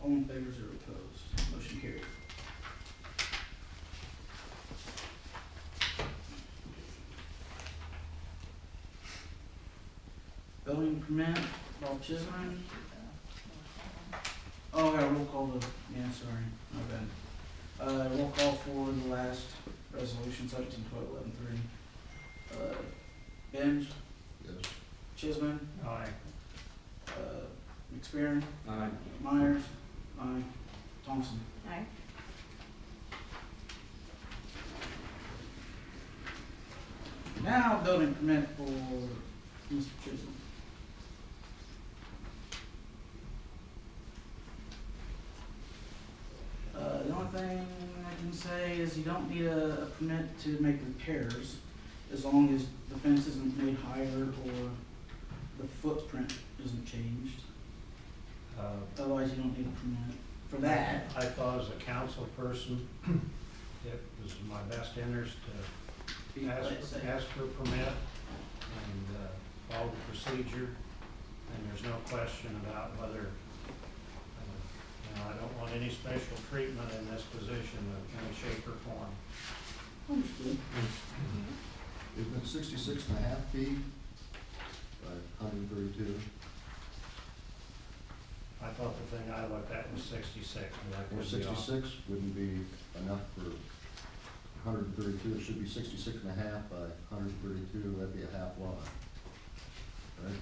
All in favor, zero opposed. Motion carried. Building permit, Bob Chisholm. Oh, yeah, roll call the, yeah, sorry, my bad. Uh, roll call for the last resolution, seventeen twelve eleven three. Uh, Benj, Yes. Chisholm, Aye. uh, McFerrin, Aye. Myers, aye, Thompson. Aye. Now building permit for Mr. Chisholm. Uh, the only thing I can say is you don't need a, a permit to make repairs as long as the fence isn't made higher or the footprint isn't changed. Uh, Otherwise, you don't need a permit for that. I thought as a council person, it was in my best interest to Be ask, like I said. ask for a permit and uh, follow the procedure. And there's no question about whether, uh, you know, I don't want any special treatment in this position of any shape or form. Understood. It's been sixty-six and a half feet by hundred and thirty-two. I thought the thing I looked at was sixty-six, but I Or could be off. sixty-six wouldn't be enough for hundred and thirty-two, it should be sixty-six and a half by hundred and thirty-two, that'd be a half lot. Right?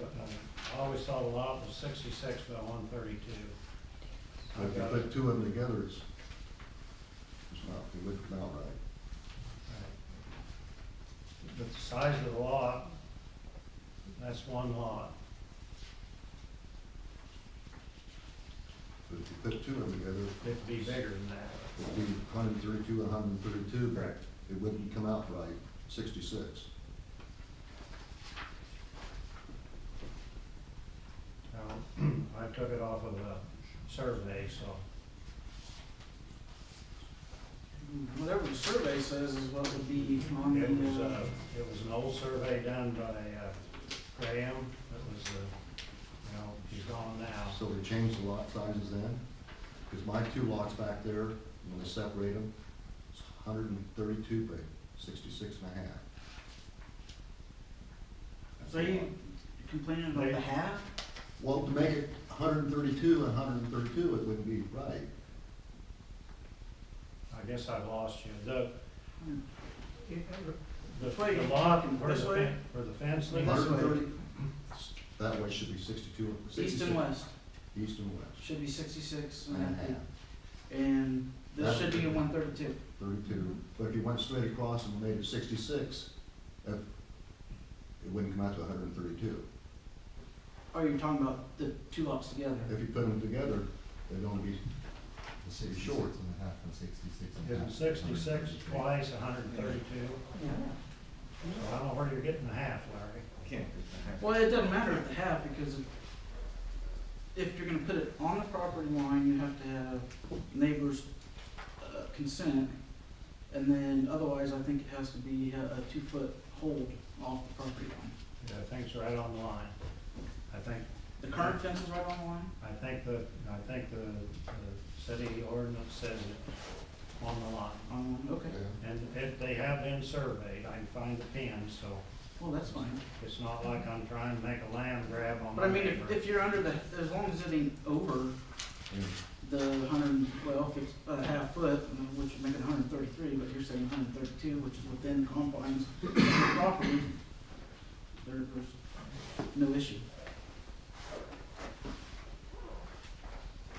Uh, I always thought a lot was sixty-six by one thirty-two. But if you put two of them together, it's, it's not, it wouldn't come out right. Right. But the size of the lot, that's one lot. But if you put two of them together, It'd be bigger than that. it'd be hundred and thirty-two and hundred and thirty-two. Correct. It wouldn't come out right, sixty-six. Now, I took it off of a survey, so Whatever the survey says is what would be on it was, the, uh, uh, it was an old survey done by uh, Graham. It was, uh, you know, he's gone now. So they changed the lot sizes then? Because my two lots back there, when they separate them, it's hundred and thirty-two by sixty-six and a half. That's so a you lot. complaining about the half? Well, to make it hundred and thirty-two and hundred and thirty-two, it wouldn't be right. I guess I lost you. The, the This way. the lot where the This way. fence, where the fence Like this lives, 130 That way should be sixty-two. East 66 and west East and west, should be sixty-six and a half, And this should be a one thirty-two. thirty-two. But if you went straight across and made it sixty-six, if, it wouldn't come out to hundred and thirty-two. Oh, you're talking about the two lots together? If you put them together, they'd only be, Sixty-six Sure. and a half and sixty-six and a half. it's sixty-six twice, hundred and thirty-two. Yeah. So I don't know where you're getting the half, Larry. Can't be. Well, it doesn't matter if the half, because if you're gonna put it on the property line, you have to have neighbors' uh, consent. And then otherwise, I think it has to be a, a two-foot hold off the property line. Yeah, I think it's right on the line. I think, The current fence is right on the line? I think the, I think the, the city ordinance says it on the line. Um, okay, And it, they have been surveyed, I can find the pin, so well, that's fine. it's not like I'm trying to make a land grab on But I my mean, neighbor. if, if you're under the, as long as it ain't over Yeah. the hundred and twelve, it's a half foot, I mean, which would make it hundred and thirty-three, but you're saying hundred and thirty-two, which is within confines of the property, there, there's no issue.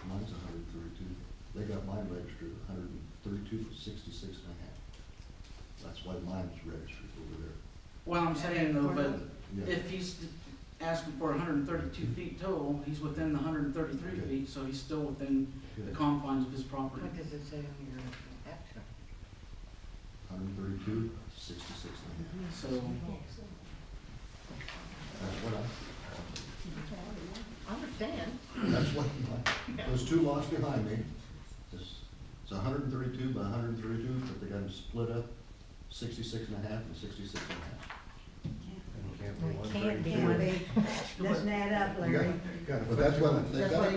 Mine's hundred and thirty-two, they got mine registered a hundred and thirty-two, sixty-six and a half. That's why mine's registered over Well, I'm saying though, there. but Yeah, if he's asking for hundred and thirty-two feet total, he's within the hundred and thirty-three Okay. feet, so he's still within the good, confines of his property. What does it say on your action? hundred and thirty-two, sixty-six and a half, So, that's what I, I understand. that's what my, those two lots behind me, is, it's hundred and thirty-two by hundred and thirty-two, but they got them split up, sixty-six and a half and sixty-six and a half. It can't be It one can't be thirty-two. one big, doesn't add up, You Larry. got- But that's what, they That's got what